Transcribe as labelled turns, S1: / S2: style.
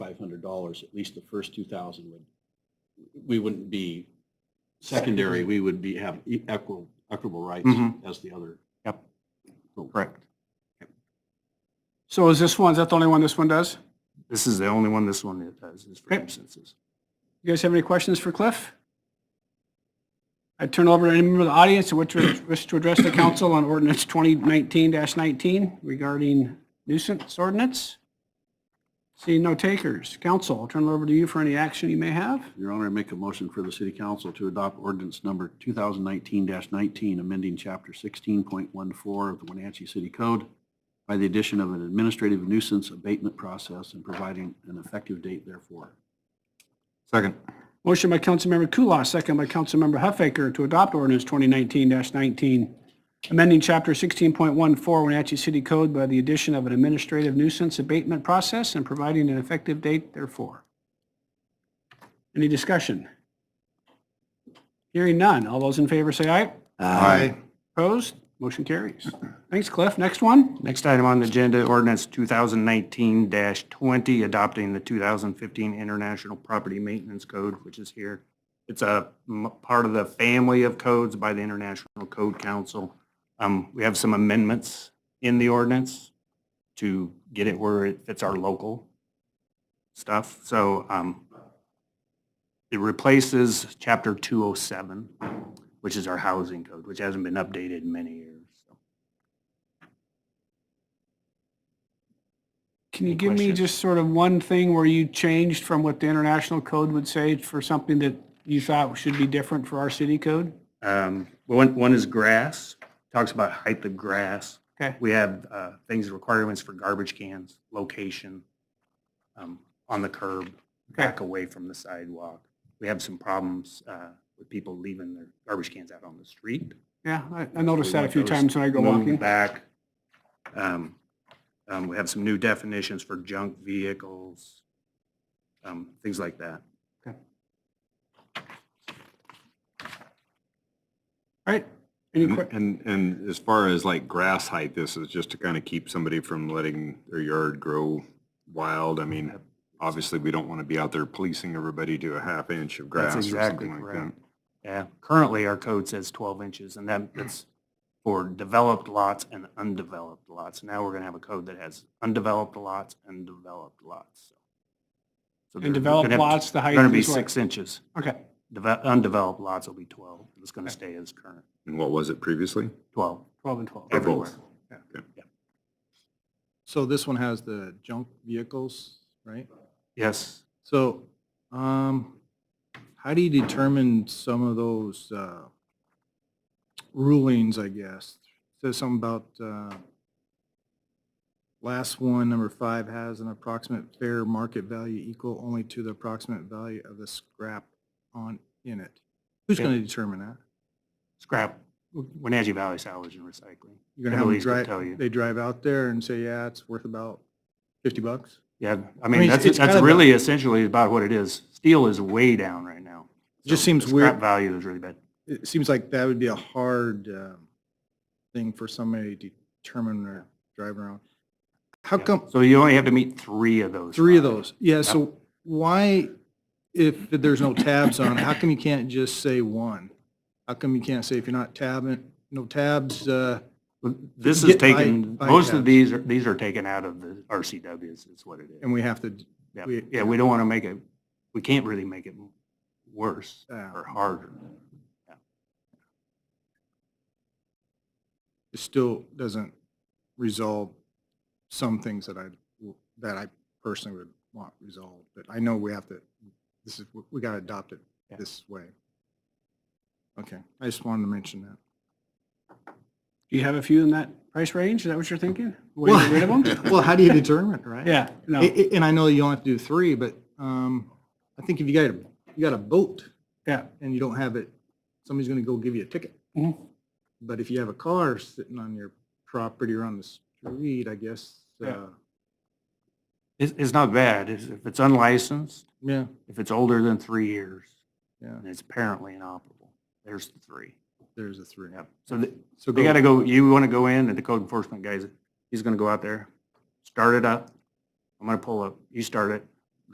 S1: dollars, at least the first two thousand would, we wouldn't be secondary, we would be, have e- equal, equitable rights
S2: Mhm.
S1: as the other.
S2: Yep.
S1: group.
S2: Correct.
S3: So is this one, is that the only one this one does?
S2: This is the only one this one that does, is for
S3: Okay.
S2: absences.
S3: You guys have any questions for Cliff? I turn over to any member of the audience who wish to wish to address the council on ordinance 2019-19 regarding nuisance ordinance. Seeing no takers. Council, I'll turn it over to you for any action you may have.
S1: Your Honor, I make a motion for the city council to adopt ordinance number 2019-19, amending chapter 16.14 of the Wenatchee City Code by the addition of an administrative nuisance abatement process and providing an effective date therefore.
S2: Second.
S3: Motion by Councilmember Kulas, second by Councilmember Huffaker to adopt ordinance 2019-19, amending Chapter 16.14 Wenatchee City Code by the addition of an administrative nuisance abatement process and providing an effective date therefor. Any discussion? Hearing none. All those in favor say aye.
S2: Aye.
S3: Opposed? Motion carries. Thanks, Cliff. Next one?
S2: Next item on the agenda, ordinance 2019-20, adopting the 2015 International Property Maintenance Code, which is here. It's a m- part of the family of codes by the International Code Council. Um, We have some amendments in the ordinance to get it where it fits our local stuff. So um, it replaces Chapter 207, which is our housing code, which hasn't been updated in many years. So
S3: Can you
S2: Any
S3: give me
S2: questions?
S3: just sort of one thing where you changed from what the international code would say for something that you thought should be different for our city code?
S2: Um, One, one is grass, talks about height of grass.
S3: Okay.
S2: We have uh, things, requirements for garbage cans, location um, on the curb, back away from the sidewalk. We have some problems uh, with people leaving their garbage cans out on the street.
S3: Yeah, I- I noticed
S2: We
S3: that a
S2: want
S3: few
S2: those
S3: times when I go
S2: moved
S3: walking.
S2: Back. Um, um, We have some new definitions for junk vehicles, um, things like that.
S3: Right? Any
S2: Mm-hmm.
S4: And,
S3: que-
S4: and- and as far as like grass height, this is just to kind of keep somebody from letting their yard grow wild. I mean, obviously, we don't want to be out there policing everybody to a half inch of grass or
S2: exactly
S4: something like that.
S2: correct. Yeah, currently our code says 12 inches and that, that's for developed lots and undeveloped lots. Now we're going to have a code that has undeveloped lots and developed lots. So
S3: And developed lots, the height
S2: Going to be
S3: is
S2: six
S3: what?
S2: inches.
S3: Okay,
S2: Deve- Undeveloped lots will be 12. It's going to stay as current,
S4: And what was it previously?
S2: 12
S3: 12 and 12.
S2: everywhere.
S5: So this one has the junk vehicles, right?
S2: Yes,
S5: So, um, how do you determine some of those, uh, rulings, I guess? Says something about, uh, last one, number five, has an approximate fair market value equal only to the approximate value of the scrap on, in it. Who's
S2: Yeah.
S5: gonna determine that?
S2: scrap, Wenatchee Valley Salvage and Recycling.
S5: You're gonna
S2: They're
S5: have
S2: the
S5: them
S2: least to tell you.
S5: drive, they drive out there and say, yeah, it's worth about fifty bucks?
S2: Yeah, I
S5: mean,
S2: mean, that's,
S5: it's kind
S2: that's
S5: of a-
S2: really essentially about what it is. Steel is way down right now.
S5: Just
S2: So
S5: seems
S2: the scrap
S5: weird.
S2: Value is really bad.
S5: it seems like that would be a hard um, thing for somebody to determine or drive around. How
S2: Yeah.
S5: come,
S2: So you only have to meet three of those.
S5: three of
S2: five.
S5: those? Yeah, so why, if there's no tabs on, it, how come you can't just say one? How come you can't say if you're not tabbing, no tabs, uh,
S2: This is
S5: Get by-
S2: taken,
S5: by
S2: most of
S5: tabs.
S2: these are, these are taken out of the RCWs, is what it is.
S5: and we have to,
S2: Yeah,
S5: we-
S2: yeah, we don't want to make it, we can't really make it worse
S5: uh,
S2: or harder.
S5: it still doesn't resolve some things that I, that I personally would want resolved. But I know we have to, this is, we got to adopt it
S2: Yeah.
S5: this way. Okay, I just wanted to mention that.
S3: Do you have a few in that price range? Is that what you're thinking? Way to get rid of them?
S5: Well, how do you determine, it, right?
S3: Yeah, no,
S5: I- I- And I know you only have to do three, but um, I think if you got, a you got a boat
S3: yeah.
S5: and you don't have it, somebody's going to go give you a ticket.
S3: Mhm.
S5: But if you have a car sitting on your property or on the street, I guess,
S3: Yeah.
S5: uh,
S2: It's, it's not bad. It's- If it's unlicensed,
S5: yeah,
S2: if it's older than three years,
S5: yeah,
S2: and it's apparently inoperable, there's the three.
S5: there's a three.
S2: Yep. So the-
S5: So
S2: They gotta go, you wanna go in and the code enforcement guys, he's gonna go out there, start it up. I'm gonna pull up, you start it,